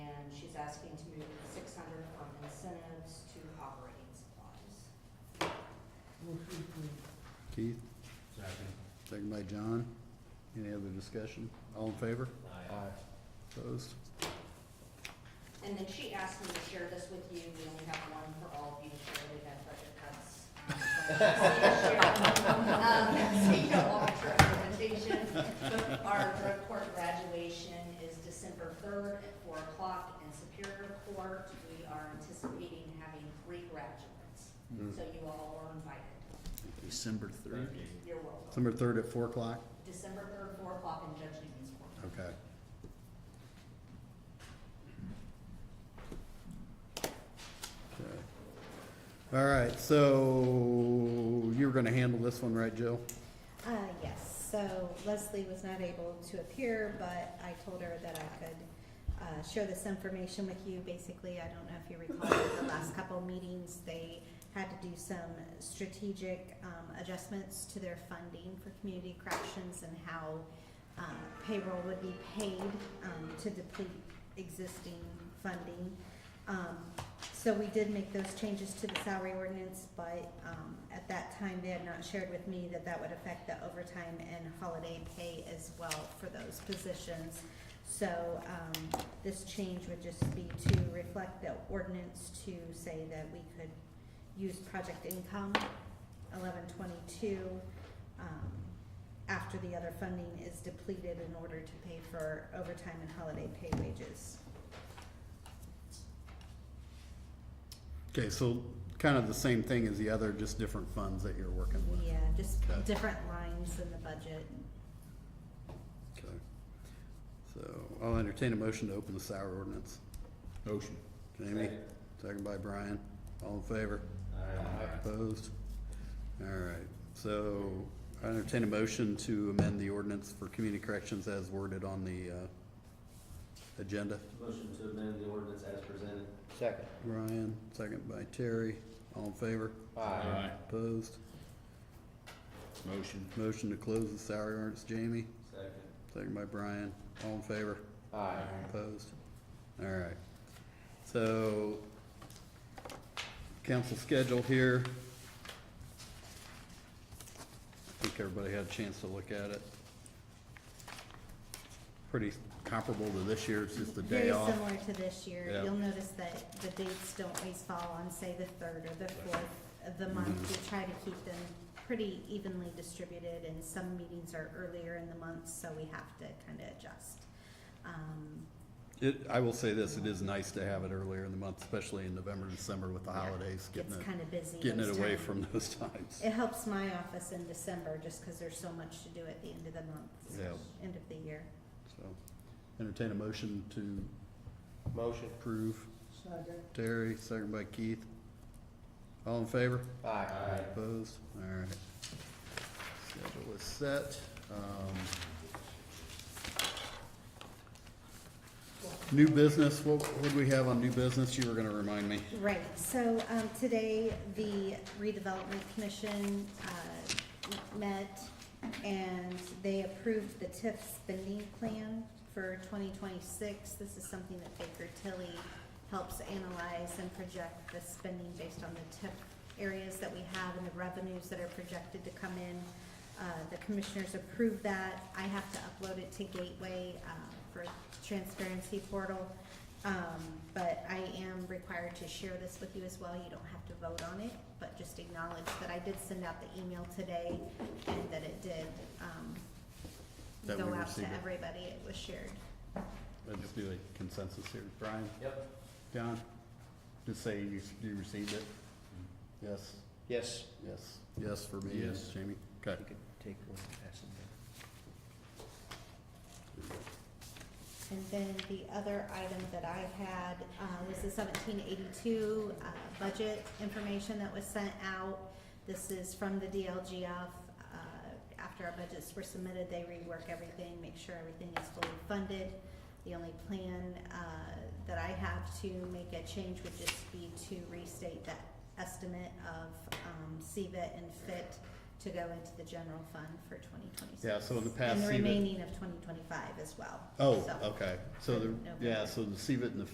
asking to move six hundred from incentives to operating supplies. Motion approved. Keith, Second. second by John. Any other discussion? All in favor? Aye. Opposed? And then she asked me to share this with you, we only have one for all of you, to share. we have budget cuts. Um, So you don't want your presentation. Our drug court graduation is December third at four o'clock in Superior Court. We are anticipating having three graduates, so you all are invited. December Thank third. you. You're welcome. December third at four o'clock? December third, four o'clock in Judge Newman's Court. Okay. Okay. All right, so you were gonna handle this one, right, Jill? Uh, yes, so Leslie was not able to appear, but I told her that I could, uh, share this information with you. Basically, I don't know if you recall, the last couple meetings, they had to do some strategic, um, adjustments to their funding for community corrections and how, uh, payroll would be paid, um, to deplete existing funding. Um, so we did make those changes to the salary ordinance, but, um, at that time, they had not shared with me that that would affect the overtime and holiday pay as well for those positions. So, um, this change would just be to reflect the ordinance to say that we could use project income eleven twenty-two, um, after the other funding is depleted in order to pay for overtime and holiday pay wages. Okay, so kind of the same thing as the other, just different funds that you're working with. Yeah, uh, just Okay. different lines in the budget. Okay. So I'll entertain a motion to open the salary ordinance. Motion. Jamie, second by Brian. All in favor? Aye. Opposed? All right, so I entertain a motion to amend the ordinance for community corrections as worded on the, uh, agenda. Motion to amend the ordinance as presented. Second. Brian, second by Terry. All in favor? Aye. Opposed? Motion. Motion to close the salary ordinance, Jamie, Second. second by Brian. All in favor? Aye. Opposed? All right. So, council schedule here. I think everybody had a chance to look at it. Pretty comparable to this year, it's just a day off. Very similar to this year. Yeah. You'll notice that the dates don't always fall on, say, the third or the fourth of the month. Mm-hmm. We try to keep them pretty evenly distributed and some meetings are earlier in the month, so we have to kind of adjust. Um, It, I will say this, it is nice to have it earlier in the month, especially in November, December with the Yeah, holidays, getting Gets it, kind of busy. getting it those away times. from those times. It helps my office in December just because there's so much to do at the end of the month, Yeah, end of the year. so, entertain a motion to Motion. approve. Second. Terry, second by Keith. All in favor? Aye. Opposed? All right. Schedule is set. Um, New business, what, what do we have on new business? You were gonna remind me. Right, so, um, today, the redevelopment commission, uh, met, and they approved the TIF spending plan for twenty twenty-six. This is something that Baker Tilly helps analyze and project the spending based on the TIF areas that we have and the revenues that are projected to come in. Uh, the commissioners approved that. I have to upload it to Gateway, uh, for transparency portal. Um, but I am required to share this with you as well, you don't have to vote on it, but just acknowledge that I did send out the email today and that it did, um, That we go out to received it. everybody, it was shared. Let's do a consensus here. Brian, Yep. John, just say you, you received it? Yes, Yes. yes, yes for me, yes, Mm-hmm. Yes. Jamie. Okay. You could take one and pass it And then the other item that I had, uh, was the seventeen eighty-two, uh, budget information that was sent out. This is from the DLGF, uh, after our budgets were submitted, they rework everything, make sure everything is fully funded. The only plan, uh, that I have to make a change would just be to restate that estimate of, um, CVIT and FIT to go into the general fund for twenty twenty-six. Yeah, so in the past, And the CVIT remaining of twenty twenty-five as well. Oh, So- okay. So the, November. yeah, so the CVIT and the